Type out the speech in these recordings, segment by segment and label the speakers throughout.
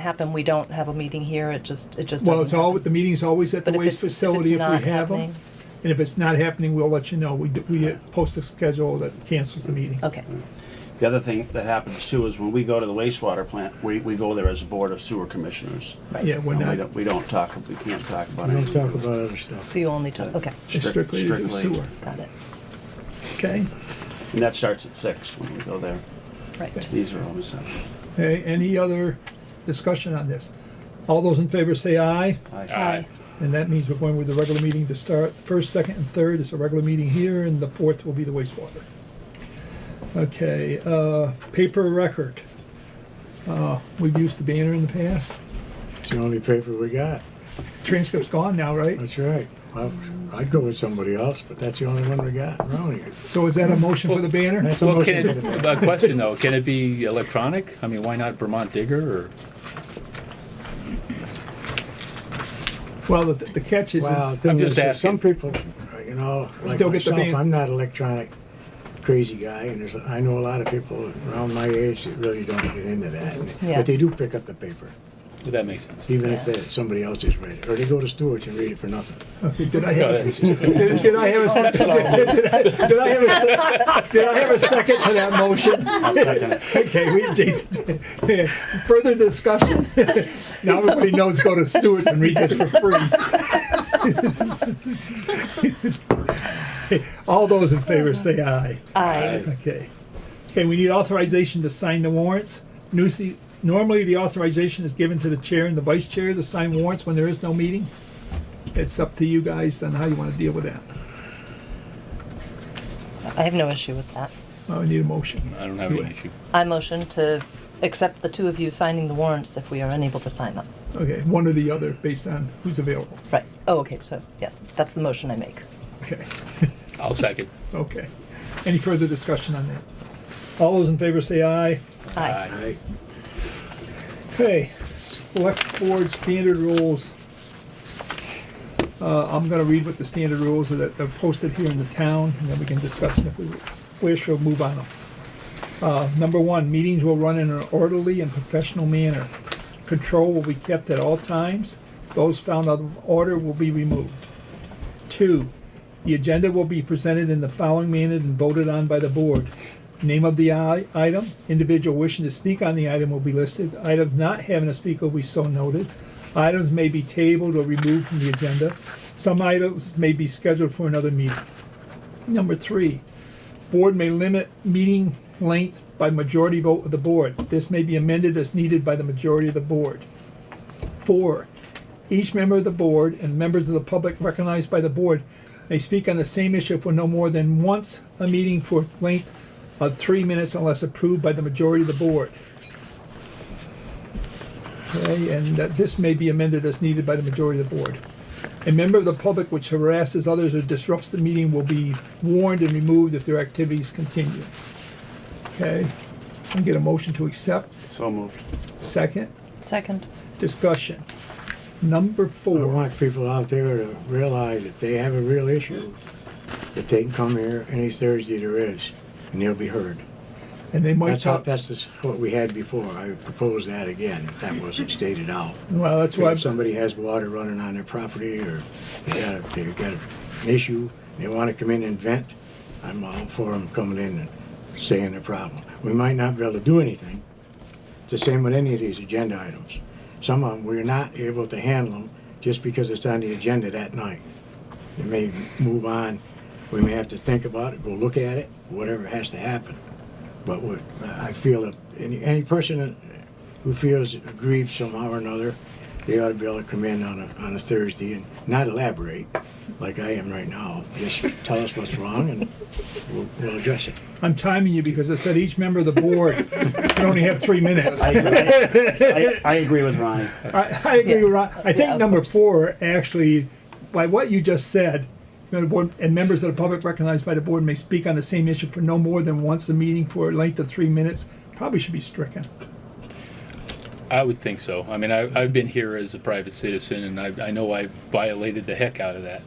Speaker 1: happen, we don't have a meeting here, it just, it just doesn't
Speaker 2: Well, it's all,
Speaker 1: happen.
Speaker 2: the meeting's always at the
Speaker 1: But if
Speaker 2: waste
Speaker 1: it's- if it's
Speaker 2: facility if
Speaker 1: not
Speaker 2: we have them.
Speaker 1: happening-
Speaker 2: And if it's not happening, we'll let you know. We, do- we uh, post a schedule that cancels the meeting.
Speaker 1: Okay,
Speaker 3: The other thing that happens too is when we go to the wastewater plant, we, we go there as a board of sewer commissioners.
Speaker 2: Yeah,
Speaker 1: right.
Speaker 2: we're
Speaker 3: And we
Speaker 2: not
Speaker 3: don't, we don't talk, we can't talk about
Speaker 4: We don't
Speaker 3: anything.
Speaker 4: talk about other stuff.
Speaker 1: So you only took, okay,
Speaker 3: Strict-
Speaker 2: strictly to do
Speaker 3: strictly.
Speaker 2: sewer,
Speaker 1: got it,
Speaker 2: okay?
Speaker 3: And that starts at six when we go there.
Speaker 1: right.
Speaker 3: These are always, uh,
Speaker 2: Okay, any other discussion on this? All those in favor say aye,
Speaker 3: I-
Speaker 1: Aye.
Speaker 2: and that means we're going with the regular meeting to start. First, second, and third is a regular meeting here, and the fourth will be the wastewater. Okay, uh, paper record. Uh, we've used the banner in the past.
Speaker 4: It's the only paper we got.
Speaker 2: Transcript's gone now, right?
Speaker 4: That's right. I- I'd go with somebody else, but that's the only one we got around here.
Speaker 2: So is that a motion for the banner?
Speaker 4: That's a
Speaker 5: Well,
Speaker 4: motion
Speaker 5: can
Speaker 4: to the
Speaker 5: it, a question though, can it be electronic? I mean, why not Vermont Digger or?
Speaker 2: Well, the, the catch is,
Speaker 4: Wow,
Speaker 2: is
Speaker 4: thing
Speaker 5: I'm
Speaker 4: is,
Speaker 5: just
Speaker 4: that some
Speaker 5: asking.
Speaker 4: people, uh, you know, like
Speaker 2: Still get the
Speaker 4: myself,
Speaker 2: ban-
Speaker 4: I'm not an electronic crazy guy, and there's, I know a lot of people around my age that really don't get into that. and-
Speaker 1: Yeah.
Speaker 4: But they do pick up the paper,
Speaker 5: Would that make sense?
Speaker 4: even if that- somebody else has read it, or they go to Stewart's and read it for nothing.
Speaker 2: okay, did I have, a- did did I have a second? Did I have a, se- did I have a second to that motion?
Speaker 3: I'll second it.
Speaker 2: Okay, we, Jason, further discussion? Now everybody knows, go to Stewart's and read this for free. All those in favor say aye.
Speaker 1: Aye,
Speaker 2: Okay. Okay, we need authorization to sign the warrants. Nusi- Normally, the authorization is given to the chair and the vice chair to sign warrants when there is no meeting. It's up to you guys on how you want to deal with that.
Speaker 1: I have no issue with that.
Speaker 2: I need a motion.
Speaker 5: I don't have any issue.
Speaker 1: I motion to accept the two of you signing the warrants if we are unable to sign them.
Speaker 2: Okay, one or the other, based on who's available.
Speaker 1: Right, oh, okay, so, yes, that's the motion I make.
Speaker 2: Okay,
Speaker 5: I'll second.
Speaker 2: okay. Any further discussion on that? All those in favor say aye.
Speaker 1: Aye,
Speaker 4: I,
Speaker 2: Okay, select board standard rules. Uh, I'm gonna read what the standard rules are that are posted here in the town, and then we can discuss them if we wish or move on them. Uh, number one, meetings will run in an orderly and professional manner. Control will be kept at all times. Those found out of order will be removed. Two, the agenda will be presented in the following manner and voted on by the board. Name of the i- item, individual wishing to speak on the item will be listed. Items not having a speaker will be so noted. Items may be tabled or removed from the agenda. Some items may be scheduled for another meeting. Number three, board may limit meeting length by majority vote of the board. This may be amended as needed by the majority of the board. Four, each member of the board and members of the public recognized by the board may speak on the same issue for no more than once a meeting for length of three minutes unless approved by the majority of the board. Okay, and that this may be amended as needed by the majority of the board. A member of the public which harasses others or disrupts the meeting will be warned and removed if their activities continue. Okay, and get a motion to accept.
Speaker 3: So moved.
Speaker 2: Second,
Speaker 1: second.
Speaker 2: discussion. Number
Speaker 4: I
Speaker 2: four.
Speaker 4: want people out there to realize if they have a real issue, that they can come here any Thursday there is, and they'll be heard.
Speaker 2: And they might
Speaker 4: That's how,
Speaker 2: talk,
Speaker 4: that's just what we had before. I propose that again, if that wasn't stated out.
Speaker 2: well, that's why,
Speaker 4: If somebody has water running on their property, or they got, a- they got an issue, they wanna come in and vent, I'm all for them coming in and saying their problem. We might not be able to do anything. It's the same with any of these agenda items. Some of them, we're not able to handle them just because it's on the agenda that night. It may move on, we may have to think about it, go look at it, whatever has to happen. But what, I feel that any, any person that- who feels aggrieved somehow or another, they ought to be able to come in on a, on a Thursday and not elaborate like I am right now. Just tell us what's wrong and we'll, we'll address it.
Speaker 2: I'm timing you because I said each member of the board can only have three minutes.
Speaker 3: I,
Speaker 2: I,
Speaker 3: I, I agree with Ronnie.
Speaker 2: I agree, with Ron. I
Speaker 1: Yeah,
Speaker 2: think
Speaker 1: of
Speaker 2: number
Speaker 1: course.
Speaker 2: four, actually, by what you just said, you know, the board, and members of the public recognized by the board may speak on the same issue for no more than once a meeting for a length of three minutes, probably should be stricken.
Speaker 5: I would think so. I mean, I, I've been here as a private citizen and I, I know I violated the heck out of that.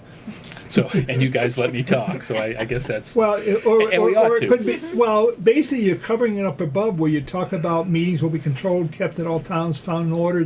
Speaker 5: So, and you guys let me talk, so I, I guess that's,
Speaker 2: Well, it- or,
Speaker 5: And we
Speaker 2: or, or
Speaker 5: ought
Speaker 2: it
Speaker 5: to.
Speaker 2: could be, well, basically, you're covering it up above where you talk about meetings will be controlled, kept at all times, found in order,